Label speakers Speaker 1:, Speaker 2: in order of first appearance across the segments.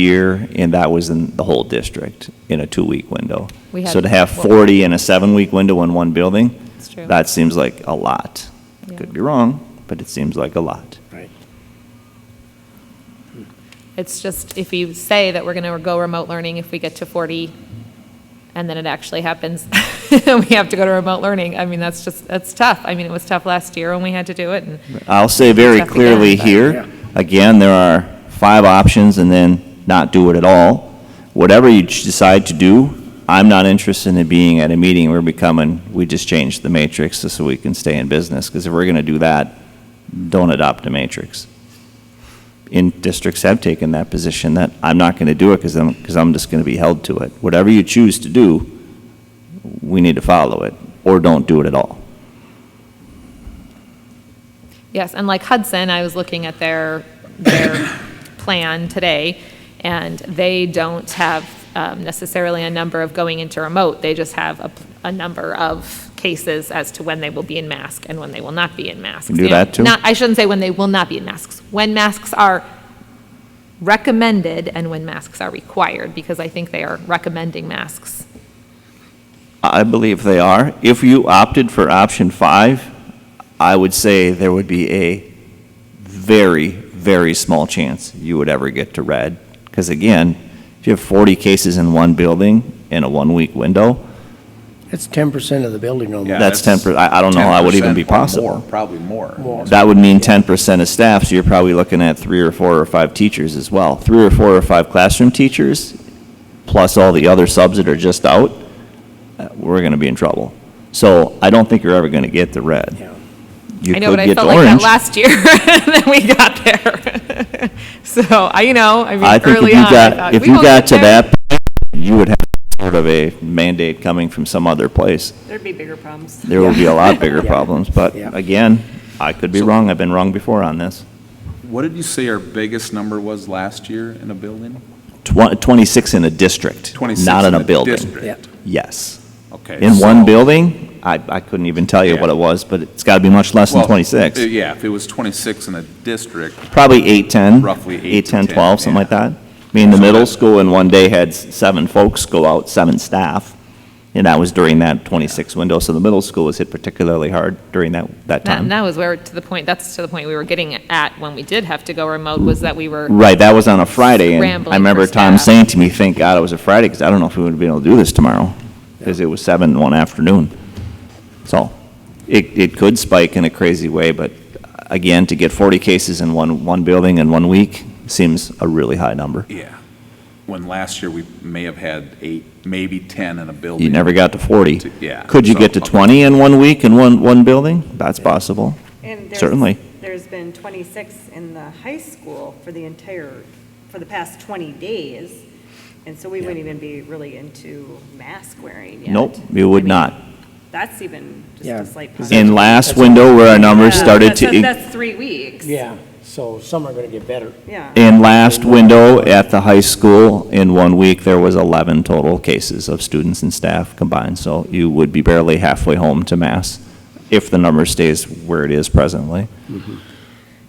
Speaker 1: year, and that was in the whole district in a two-week window.
Speaker 2: We
Speaker 1: So
Speaker 2: had
Speaker 1: to have
Speaker 2: four.
Speaker 1: 40 in a seven-week window in one building,
Speaker 2: That's true.
Speaker 1: that seems like a lot.
Speaker 2: Yeah.
Speaker 1: Could be wrong, but it seems like a lot.
Speaker 3: Right.
Speaker 2: It's just, if you say that we're going to go remote learning if we get to 40, and then it actually happens, we have to go to remote learning, I mean, that's just, that's tough. I mean, it was tough last year when we had to do it, and
Speaker 1: I'll say very
Speaker 2: Tough again,
Speaker 1: clearly
Speaker 2: but-
Speaker 1: here, again, there are five options and then not do it at all. Whatever you ch- decide to do, I'm not interested in being at a meeting where we come and we just change the matrix just so we can stay in business, because if we're going to do that, don't adopt a matrix. In districts have taken that position, that I'm not going to do it because I'm, because I'm just going to be held to it. Whatever you choose to do, we need to follow it, or don't do it at all.
Speaker 2: Yes, and like Hudson, I was looking at their, their plan today, and they don't have um, necessarily a number of going into remote. They just have a, a number of cases as to when they will be in mask and when they will not be in masks.
Speaker 1: Can do that, too?
Speaker 2: Not, I shouldn't say when they will not be in masks, when masks are recommended and when masks are required, because I think they are recommending masks.
Speaker 1: I believe they are. If you opted for option five, I would say there would be a very, very small chance you would ever get to red. Because again, if you have 40 cases in one building in a one-week window,
Speaker 3: That's ten percent of the building
Speaker 4: Yeah,
Speaker 3: almost.
Speaker 1: That's 10% I- I don't know how it would even be
Speaker 4: 10% or
Speaker 1: possible.
Speaker 4: more, Probably more.
Speaker 3: More.
Speaker 1: that would mean 10% of staff, so you're probably looking at three or four or five teachers as well. Three or four or five classroom teachers, plus all the other subs that are just out, uh, we're going to be in trouble. So I don't think you're ever going to get the red.
Speaker 3: Yeah.
Speaker 1: You
Speaker 2: I know,
Speaker 1: could
Speaker 2: but I
Speaker 1: get
Speaker 2: felt
Speaker 1: to
Speaker 2: like that
Speaker 1: orange.
Speaker 2: last year, and then we got there. So, I, you know, I mean,
Speaker 1: I think if
Speaker 2: early
Speaker 1: you
Speaker 2: on, I
Speaker 1: got,
Speaker 2: thought,
Speaker 1: if
Speaker 2: we
Speaker 1: you
Speaker 2: won't
Speaker 1: got
Speaker 2: get
Speaker 1: to
Speaker 2: there.
Speaker 1: that, point, you would have sort of a mandate coming from some other place.
Speaker 5: There'd be bigger problems.
Speaker 1: There will be a lot bigger
Speaker 3: Yeah.
Speaker 1: problems, but
Speaker 3: Yeah.
Speaker 1: again, I could be wrong, I've been wrong before on this.
Speaker 4: What did you say our biggest number was last year in a building?
Speaker 1: Twen- 26 in a district,
Speaker 4: 26
Speaker 1: not in a
Speaker 4: the
Speaker 1: building.
Speaker 4: district.
Speaker 3: Yeah.
Speaker 1: Yes.
Speaker 4: Okay.
Speaker 1: In one
Speaker 4: so-
Speaker 1: building, I, I couldn't even tell you what
Speaker 4: Yeah.
Speaker 1: it was, but it's got to be much less than
Speaker 4: Well, uh,
Speaker 1: 26.
Speaker 4: Yeah, if it was 26 in a district,
Speaker 1: Probably 8, 10.
Speaker 4: Roughly eight to
Speaker 1: 10,
Speaker 4: 10,
Speaker 1: 12, something
Speaker 4: yeah.
Speaker 1: like that. I mean, the
Speaker 4: So
Speaker 1: middle
Speaker 4: that-
Speaker 1: school in one day had s- seven folks go out, seven staff, and that was during that 26 window, so the middle school was hit particularly hard during that, that
Speaker 2: That,
Speaker 1: time.
Speaker 2: that was where, to the point, that's to the point we were getting at when we did have to go remote, was that we were,
Speaker 1: Right, that was on a Friday, and
Speaker 2: Scrambling
Speaker 1: I remember
Speaker 2: for
Speaker 1: Tom
Speaker 2: staff.
Speaker 1: saying to me, thank God it was a Friday, because I don't know if we would have been able to do this tomorrow, because it was seven in one afternoon. So, it, it could spike in a crazy way, but again, to get 40 cases in one, one building in one week seems a really high number.
Speaker 4: yeah. When last year, we may have had eight, maybe 10 in a building.
Speaker 1: You never got to 40.
Speaker 4: To- yeah,
Speaker 1: Could you get to
Speaker 4: so-
Speaker 1: 20 in one week in one, one building? That's possible.
Speaker 5: And there's-
Speaker 1: Certainly.
Speaker 5: There's been 26 in the high school for the entire, for the past 20 days, and so we wouldn't even be really into mask wearing yet.
Speaker 1: Nope, you would
Speaker 5: I mean,
Speaker 1: not.
Speaker 5: That's even just
Speaker 3: Yeah.
Speaker 5: a slight.
Speaker 1: In
Speaker 5: positive.
Speaker 1: last
Speaker 3: That's-
Speaker 1: window where our numbers
Speaker 5: Yeah,
Speaker 1: started
Speaker 5: that's-
Speaker 1: to.
Speaker 5: That's three weeks.
Speaker 3: Yeah, so some are gonna get better.
Speaker 5: Yeah.
Speaker 1: In last window at the high school, in one week, there was 11 total cases of students and staff combined, so you would be barely halfway home to mass if the number stays where it is presently.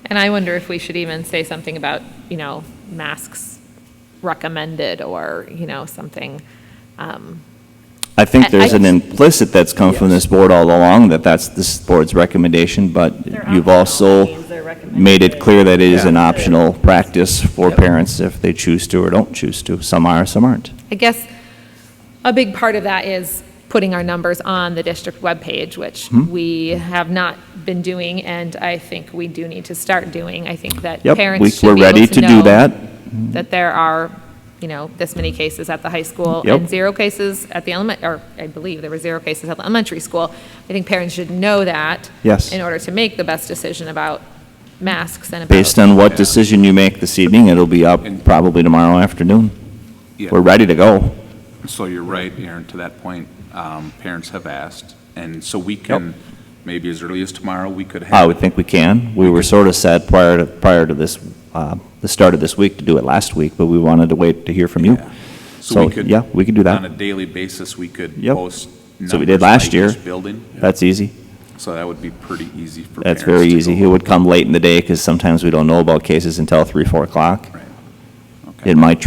Speaker 2: and I wonder if we should even say something about, you know, masks recommended, or, you know, something. um,
Speaker 1: I
Speaker 2: I-
Speaker 1: think there's
Speaker 2: I-
Speaker 1: an implicit that's come from this board all along, that that's this board's recommendation, but
Speaker 5: They're
Speaker 1: you've
Speaker 5: optional.
Speaker 1: also
Speaker 5: It means they're recommended.
Speaker 1: made it clear that it is an
Speaker 4: Yeah.
Speaker 1: optional practice for parents if they choose to or don't choose to. Some are, some aren't.
Speaker 2: I guess a big part of that is putting our numbers on the district webpage, which
Speaker 1: Hmm?
Speaker 2: we have not been doing, and I think we do need to start doing. I think that
Speaker 1: Yep, we-
Speaker 2: parents
Speaker 1: we're
Speaker 2: should be
Speaker 1: ready
Speaker 2: able
Speaker 1: to
Speaker 2: to
Speaker 1: do
Speaker 2: know
Speaker 1: that.
Speaker 2: that there are, you know, this many cases at the high school
Speaker 1: Yep.
Speaker 2: and zero cases at the element, or I believe there were zero cases at the elementary school. I think parents should know that.
Speaker 1: Yes.
Speaker 2: In order to make the best decision about masks and about.
Speaker 1: Based on what decision you make this evening, it'll be up
Speaker 4: And-
Speaker 1: probably tomorrow afternoon.
Speaker 4: Yeah.
Speaker 1: We're ready to go.
Speaker 4: So you're right, Aaron, to that point, um, parents have asked, and so we can, maybe as early as tomorrow, we could have.
Speaker 1: I would think we can. We were sort of set prior to, prior to this, uh, the start of this week to do it last week, but we wanted to wait to hear from you.
Speaker 4: Yeah.
Speaker 1: So,
Speaker 4: we could-
Speaker 1: yeah, we could do that.
Speaker 4: On a daily basis, we could
Speaker 1: Yep.
Speaker 4: post.
Speaker 1: So we
Speaker 4: numbers
Speaker 1: did last
Speaker 4: by
Speaker 1: year.
Speaker 4: each Building,
Speaker 1: That's easy.
Speaker 4: so that would be pretty easy for
Speaker 1: That's
Speaker 4: parents.
Speaker 1: very
Speaker 4: to
Speaker 1: easy.
Speaker 4: go
Speaker 1: He would come late in the day because sometimes we don't know about cases until 3, 4 o'clock.
Speaker 4: Right. Okay.
Speaker 1: It might